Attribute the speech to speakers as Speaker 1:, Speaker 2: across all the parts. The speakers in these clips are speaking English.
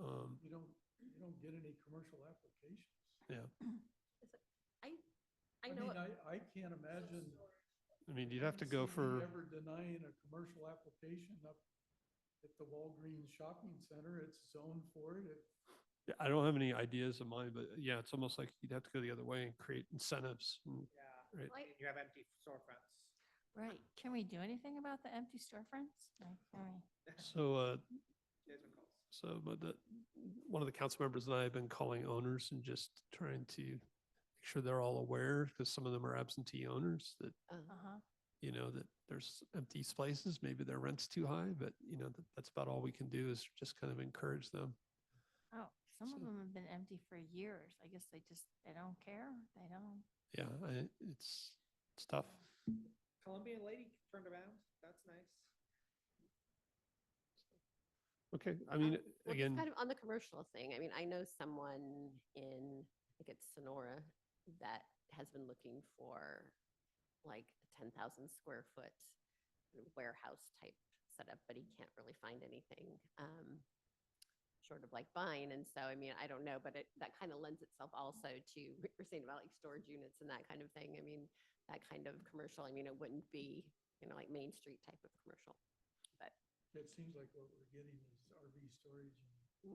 Speaker 1: Um,
Speaker 2: don't get any commercial applications.
Speaker 3: I, I
Speaker 2: I
Speaker 3: know,
Speaker 2: mean,
Speaker 3: it-
Speaker 2: I, I can't imagine.
Speaker 1: I mean, you'd have to go
Speaker 2: haven't seen me
Speaker 1: for,
Speaker 2: Ever denying a commercial application up at the Walgreens shopping center, it's zoned for it, it
Speaker 1: yeah, I don't have any ideas in mind, but yeah, it's almost like you'd have to go the other way and create incentives. and-
Speaker 4: Yeah,
Speaker 1: Right.
Speaker 3: like,
Speaker 4: and you have empty storefronts.
Speaker 5: Right, can we do anything about the empty storefronts? Like, can we-
Speaker 1: So, uh,
Speaker 4: Desmond Coles.
Speaker 1: so, but the, one of the council members and I have been calling owners and just trying to make sure they're all aware, because some of them are absentee owners that
Speaker 3: Uh,
Speaker 5: Uh-huh,
Speaker 1: you know, that there's empty spaces, maybe their rent's too high, but you know, that, that's about all we can do is just kind of encourage them.
Speaker 5: oh, some of
Speaker 1: So-
Speaker 5: them have been empty for years. I guess they just, they don't care, they don't.
Speaker 1: Yeah, I, it's, it's tough.
Speaker 4: Colombian lady turned around, that's nice.
Speaker 1: Okay, I mean,
Speaker 3: well, just
Speaker 1: again,
Speaker 3: kind of on the commercial thing, I mean, I know someone in, I think it's Sonora, that has been looking for like a ten thousand square foot warehouse type setup, but he can't really find anything, um, short of like buying. And so, I mean, I don't know, but it, that kind of lends itself also to, what we're saying about like storage units and that kind of thing. I mean, that kind of commercial, I mean, it wouldn't be, you know, like Main Street type of commercial.
Speaker 2: it seems like what we're getting is RV storage and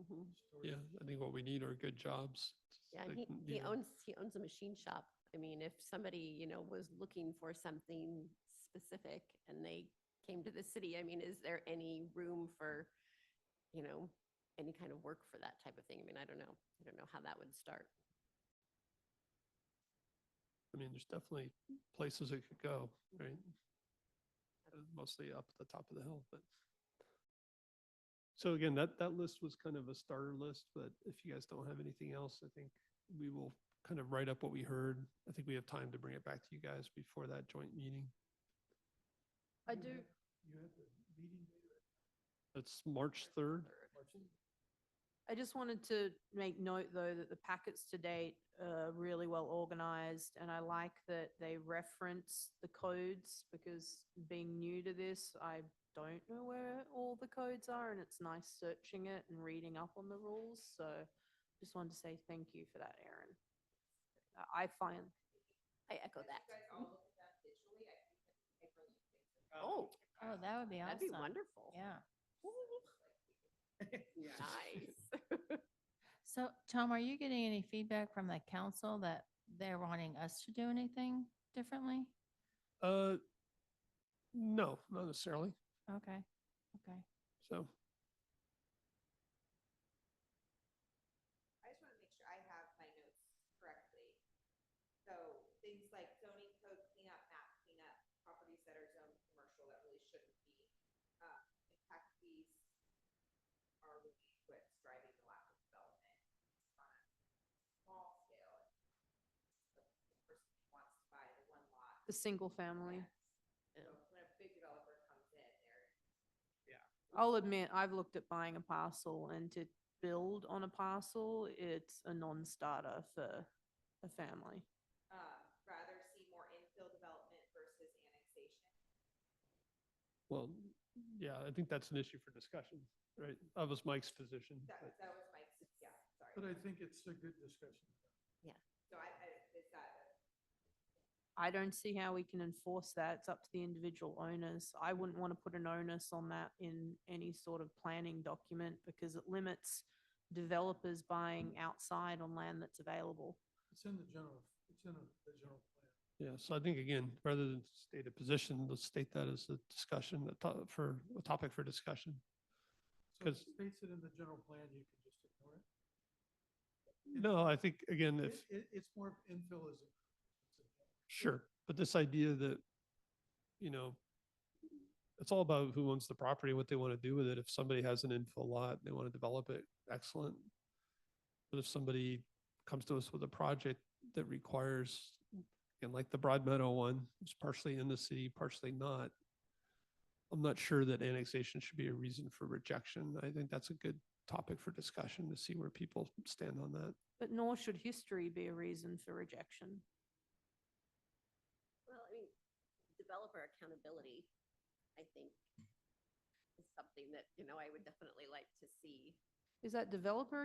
Speaker 3: hmm
Speaker 2: storage.
Speaker 1: yeah, I think what we need are good jobs.
Speaker 3: Yeah,
Speaker 1: that
Speaker 3: and he,
Speaker 1: can, you
Speaker 3: he
Speaker 1: know,
Speaker 3: owns, he owns a machine shop. I mean, if somebody, you know, was looking for something specific and they came to the city, I mean, is there any room for, you know, any kind of work for that type of thing? I mean, I don't know. I don't know how that would start.
Speaker 1: I mean, there's definitely places it could go, right? Uh, Mostly up at the top of the hill, but. So again, that, that list was kind of a starter list, but if you guys don't have anything else, I think we will kind of write up what we heard. I think we have time to bring it back to you guys before that joint meeting.
Speaker 6: I
Speaker 2: You
Speaker 6: do,
Speaker 2: have- You have the meeting later?
Speaker 1: That's March third.
Speaker 6: I just wanted to make note, though, that the packets to date are really well organized, and I like that they reference the codes, because being new to this, I don't know where all the codes are, and it's nice searching it and reading up on the rules, so just wanted to say thank you for that, Erin. I I find,
Speaker 3: I echo that.
Speaker 4: Oh.
Speaker 5: Oh, that would be
Speaker 3: That'd be
Speaker 5: awesome.
Speaker 3: wonderful.
Speaker 5: Yeah.
Speaker 3: Nice.
Speaker 5: So Tom, are you getting any feedback from the council that they're wanting us to do anything differently?
Speaker 1: Uh, no, not necessarily.
Speaker 5: Okay, okay.
Speaker 1: So,
Speaker 7: I just want to make sure I have my notes correctly. So things like zoning code cleanup, map cleanup, properties that are zoned commercial that really shouldn't be, uh, impact fees are really what's driving the lack of development on a small scale. The person who wants to buy the one lot.
Speaker 6: the single family.
Speaker 7: So when a big developer comes in, they're
Speaker 6: I'll admit, I've looked at buying a parcel and to build on a parcel, it's a non-starter for a family.
Speaker 7: um, rather see more infill development versus annexation.
Speaker 1: well, yeah, I think that's an issue for discussion, right? That was Mike's position.
Speaker 7: That,
Speaker 1: but-
Speaker 7: that was Mike's, yeah, sorry.
Speaker 2: But I think it's a good discussion.
Speaker 7: So I, I, is that a
Speaker 6: I don't see how we can enforce that. It's up to the individual owners. I wouldn't want to put an onus on that in any sort of planning document because it limits developers buying outside on land that's available.
Speaker 2: It's in the general, it's in a- the general plan.
Speaker 1: Yeah, so I think again, rather than state a position, let's state that as a discussion, a to- for, a topic for discussion.
Speaker 2: So if
Speaker 1: 'Cause-
Speaker 2: it states it in the general plan, you can just ignore it.
Speaker 1: No, I think, again, if,
Speaker 2: It, it- it's more of infill is.
Speaker 1: sure, but this idea that, you know, it's all about who owns the property, what they want to do with it. If somebody has an infill lot, they want to develop it, excellent. But if somebody comes to us with a project that requires, and like the Broad Meadow one, it's partially in the city, partially not. I'm not sure that annexation should be a reason for rejection. I think that's a good topic for discussion to see where people stand on that.
Speaker 6: But nor should history be a reason for rejection.
Speaker 3: Well, I mean, developer accountability, I think, is something that, you know, I would definitely like to see
Speaker 6: Is that developer